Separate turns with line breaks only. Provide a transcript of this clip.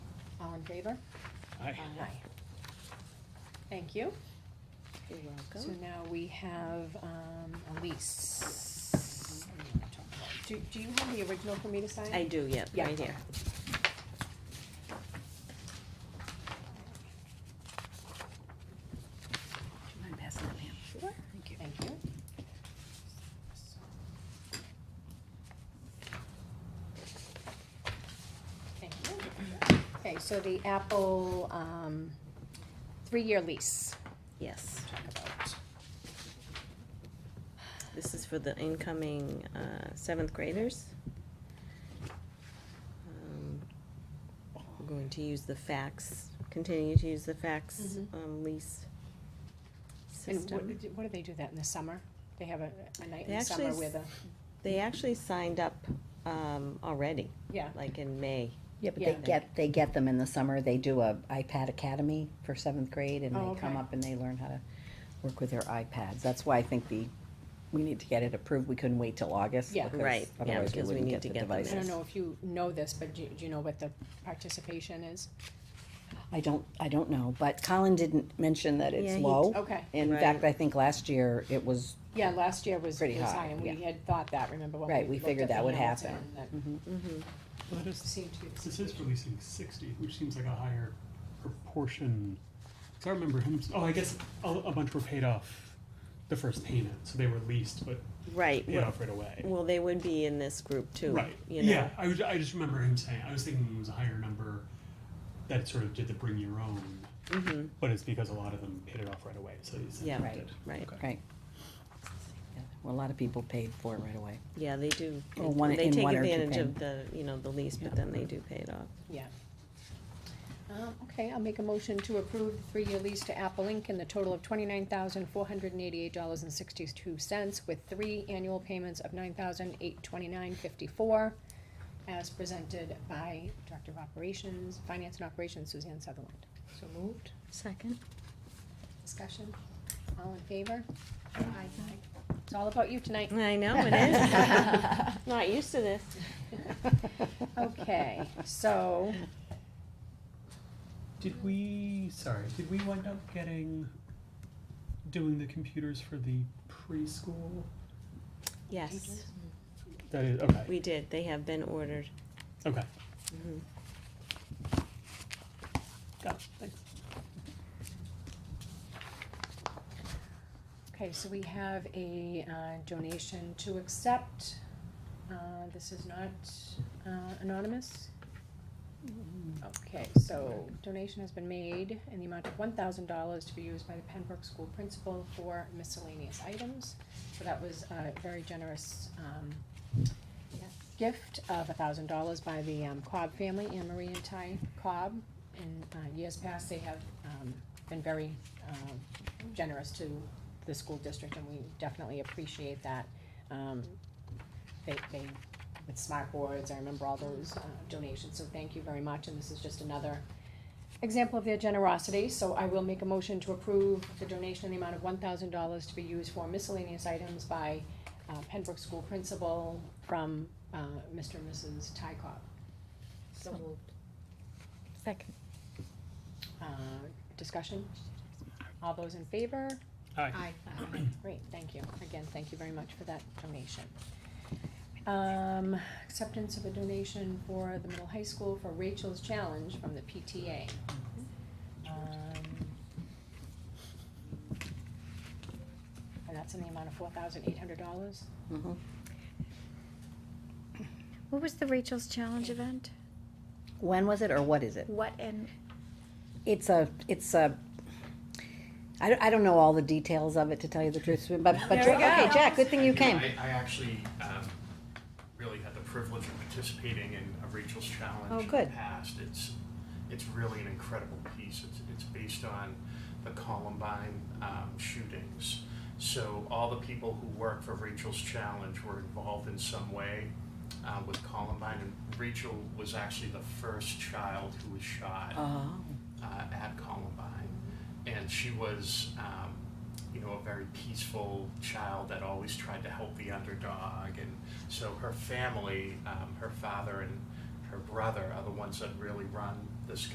All in favor?
Aye.
Thank you.
You're
So
welcome.
now we have, um, a lease. Do, do you have the original for me to sign?
I do, yeah,
Yeah.
right here.
you mind passing that, ma'am?
Sure.
Thank you.
Thank you. Thank you. Okay, so the Apple, um, three-year lease,
Yes,
talk about.
this is for the incoming uh, seventh graders. Um, We're going to use the fax, continue to use the fax
Mhm.
um, lease
And what,
system.
what do they do that in the summer? They have a, a night
They
in the
actually
summer
s-
with a,
They actually signed up um, already,
yeah,
like in May.
Yeah, but
Yeah.
they get, they get them in the summer, they do a iPad Academy for seventh grade, and
Oh,
they come
okay.
up and they learn how to work with their iPads, that's why I think the, we need to get it approved, we couldn't wait till August.
Yeah.
because
Right, yeah,
otherwise
because we
wouldn't
need to
the
get them in.
I don't
devices.
know if you know this, but do, do you know what the participation is?
I don't, I don't know, but Colin didn't mention that
Yeah,
it's
he- oh,
low.
Okay,
In
Right.
fact, I think last year it was,
yeah, last year was,
Pretty
was high,
high,
and we
yeah.
had thought that, remember when we
Right, we
looked
figured
at the
that would
Hamilton
happen.
that Mm-hmm.
Mhm.
Well, it is-
seemed to-
This is releasing sixty, which seems like a higher proportion. 'Cause I remember him, oh, I guess a, a bunch were paid off the first payment, so they were leased, but
Right,
paid off right away.
well, they would be in this group too,
Right,
you know?
yeah, I was, I just remember him saying, I was thinking it was a higher number that sort of did the bring your own,
Mhm.
but it's because a lot of them paid it off right away, so he's
Yeah.
affected.
Right,
Okay.
right. Yeah, Well, a lot of people paid for it right away.
yeah, they do,
Or one-
they
in
take
one or two
advantage of the, you know, the lease, but then they do pay it off.
Yeah. Um, okay, I'll make a motion to approve the three-year lease to Apple Inc. in the total of twenty-nine thousand, four hundred and eighty-eight dollars and sixty-two cents with three annual payments of nine thousand, eight twenty-nine, fifty-four as presented by Director of Operations, Finance and Operations Suzanne Sutherland. So moved.
Second.
Discussion? All in favor? Aye. It's all about you tonight.
I know, it is. Not used to this.
Okay, so,
Did we, sorry, did we wind up getting, doing the computers for the preschool?
Yes,
That is, okay,
we did, they have been ordered.
okay.
Mhm.
Got it, thanks.
okay, so we have a uh, donation to accept. Uh, This is not uh, anonymous. Okay, so donation has been made in the amount of one thousand dollars to be used by the Pembroke School Principal for miscellaneous items. So that was a very generous, um, gift of a thousand dollars by the um, Cobb family, Anne Marie and Ty Cobb. In uh, years past, they have um, been very um, generous to the school district, and we definitely appreciate that. Um, They, they, with smart boards, I remember all those uh, donations, so thank you very much, and this is just another example of their generosity. So I will make a motion to approve the donation in the amount of one thousand dollars to be used for miscellaneous items by uh, Pembroke School Principal from uh, Mr. and Mrs. Tycock.
So moved. Second.
Uh, Discussion? All those in favor?
Aye.
Great, thank you. Again, thank you very much for that donation. Um, Acceptance of a donation for the middle high school for Rachel's Challenge from the PTA. Um, And that's in the amount of four thousand eight hundred dollars.
Mhm.
What was the Rachel's Challenge event?
When was it or what is it?
What and
It's a, it's a, I don't, I don't know all the details of it to tell you the truth, but, but,
There we
okay,
go.
Jack, good thing you
Thank
came.
I, I actually, um, really had the privilege of participating in a Rachel's
Oh,
Challenge in the
good.
past. It's, it's really an incredible piece. It's, it's based on the Columbine, um, shootings. So all the people who work for Rachel's Challenge were involved in some way, uh, with Columbine. And Rachel was actually the first child who was shot
Oh,
uh, at Columbine, and she was, um, you know, a very peaceful child that always tried to help the underdog, and so her family, um, her father and her brother, are the ones that really run this